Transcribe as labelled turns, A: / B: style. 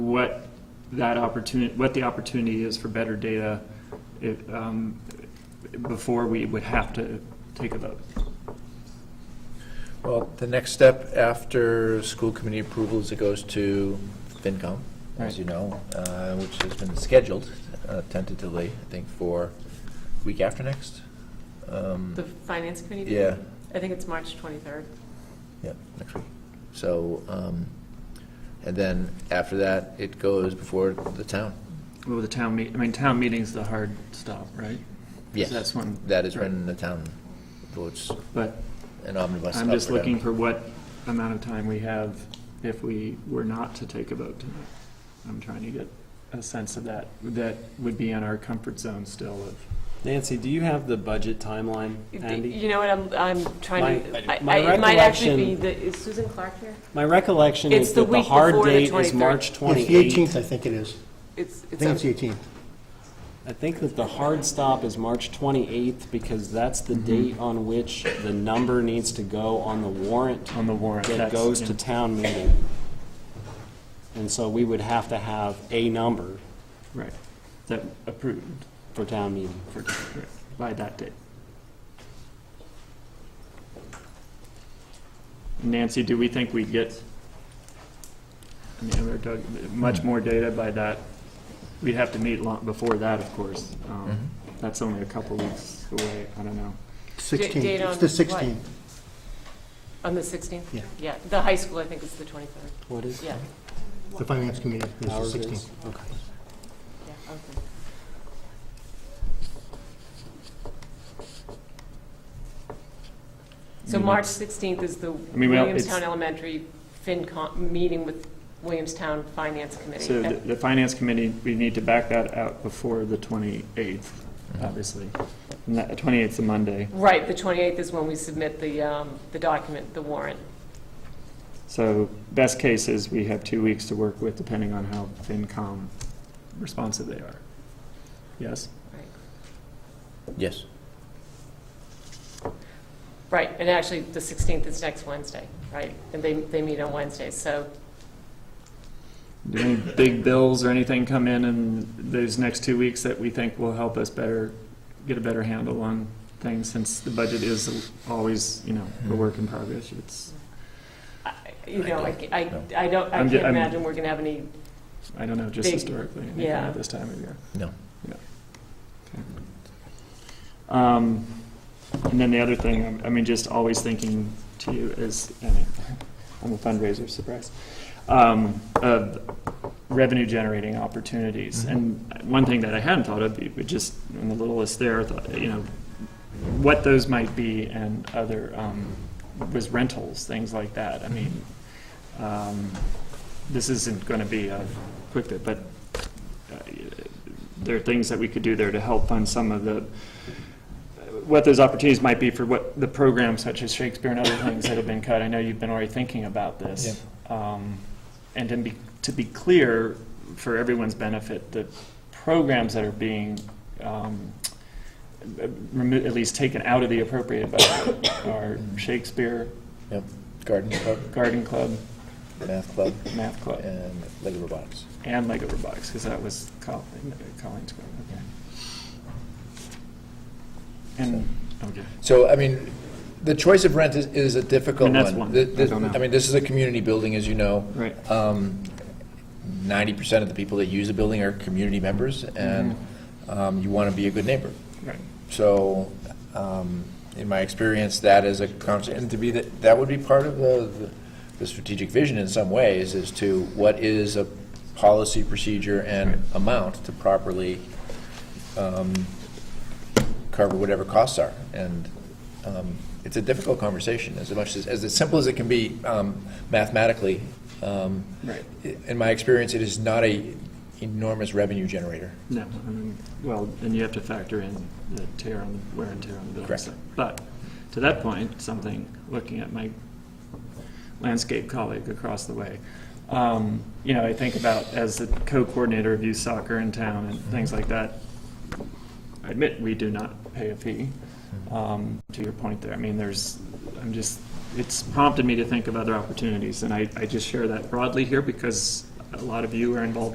A: what that opportunity, what the opportunity is for better data if, um, before we would have to take a vote.
B: Well, the next step after school committee approval is it goes to FinCom,
A: Right.
B: as you know, uh, which has been scheduled uh, tentatively, I think, for week after next. Um,
C: The finance committee?
B: Yeah,
C: I think it's March 23rd.
B: yeah, next week. So, um, and then after that, it goes before the town.
A: Well, the town meet, I mean, town meeting's the hard stop, right?
B: Yes,
A: That's when-
B: That is when the town votes
A: But
B: an omnibus.
A: I'm
B: up
A: just
B: or down.
A: looking for what amount of time we have if we were not to take a vote tonight. I'm trying to get a sense of that, that would be in our comfort zone still of,
D: Nancy, do you have the budget timeline handy?
C: You know what, I'm, I'm trying
D: My-
C: to,
D: I
C: I-
D: do. My
C: I- it might actually be,
D: recollection-
C: the is Susan Clark here?
D: My recollection
C: It's
D: is
C: the
D: that the
C: week
D: hard
C: before the
D: date is
C: 23rd.
D: March
E: It's the 18th,
D: 28th.
E: I think it is.
C: It's,
E: I think it's
C: it's,
E: the 18th.
D: I think that the hard stop is March 28th because that's the date on which the number needs to go on the warrant
A: on the warrant.
D: that
A: That's-
D: goes
A: yeah.
D: to town meeting. And so we would have to have a number
A: Right, that approved
D: for town meeting.
A: for, correct, by that date. Nancy, do we think we'd get, I mean, or Doug, much more data by that? We'd have to meet long, before that, of course. Um,
B: Mhm.
A: That's only a couple weeks away, I don't know.
E: 16th,
C: date on
E: it's the
C: what?
E: 16th.
C: on the 16th?
E: Yeah.
C: Yeah, the high school, I think, is the 23rd.
D: What is?
C: Yeah,
E: The finance committee is
D: Ours
E: the
D: is?
E: 16th.
D: Okay.
C: yeah, okay. So
A: Mhm.
C: March 16th is the
A: mean, well,
C: Williamstown
A: it's-
C: Elementary FinCom, meeting with Williamstown Finance
A: So the
C: Committee.
A: the finance committee, we need to back that out before the 28th, obviously. And that, 28th's a Monday.
C: Right, the 28th is when we submit the, um, the document, the warrant.
A: So best case is we have two weeks to work with, depending on how FinCom responsive they are. Yes?
C: Right.
B: Yes.
C: Right, and actually, the 16th is next Wednesday, right? And they, they meet on Wednesday, so,
A: Do any big bills or anything come in in those next two weeks that we think will help us better, get a better handle on things, since the budget is always, you know, a work in progress? It's,
C: I- you know, I, I
B: No.
C: I don't, I
A: I'm
C: can't
A: ju- I'm-
C: imagine we're going to have any,
A: I don't know, just
C: Big,
A: historically, anything
C: yeah.
A: at this time of year.
B: No.
A: Yeah. Okay. Um, And then the other thing, I'm- I mean, just always thinking to you is, and I'm a fundraiser, surprise, um, of revenue generating opportunities. And one thing that I hadn't thought of, but just in the little list there, I thought, you know, what those might be and other, um, was rentals, things like that. I mean, um, this isn't going to be a quick bit, but uh, there are things that we could do there to help fund some of the, what those opportunities might be for what the programs such as Shakespeare and other things that have been cut. I know you've been already thinking about this. Um, And to be, to be clear, for everyone's benefit, the programs that are being, um, remo- at least taken out of the appropriate budget are Shakespeare,
B: Yep. Garden club,
A: Garden Club,
B: math club,
A: Math Club.
B: and Lego robotics.
A: And Lego Robotics, because that was Col- Colleen's going, okay. And, okay,
B: So, I mean, the choice of rent is, is a difficult
A: I mean,
B: one.
A: that's one.
B: The-
A: I
B: the-
A: don't know.
B: I mean, this is a community building, as you know. Um,
A: right.
B: Ninety percent of the people that use the building are community members, and
A: Mm-hmm.
B: um, you want to be a good neighbor.
A: Right.
B: So, um, in my experience, that is a constant, and to be, that, that would be part of the, the- the strategic vision in some ways, is to what is a policy, procedure, and amount to properly um, cover whatever costs are. And um, it's a difficult conversation, as much as, as simple as it can be um, mathematically. Um,
A: Right.
B: i- In my experience, it is not a enormous revenue generator.
A: No, I mean, well, and you have to factor in the tear on, the wear and tear on the building.
B: Correct.
A: so- But, to that point, something, looking at my landscape colleague across the way, um, you know, I think about as the co-coordinator of youth soccer in town and things like that, I admit we do not pay a fee, um, to your point there. I mean, there's, I'm just, it's prompted me to think of other opportunities, and I, I just share that broadly here because a lot of you are involved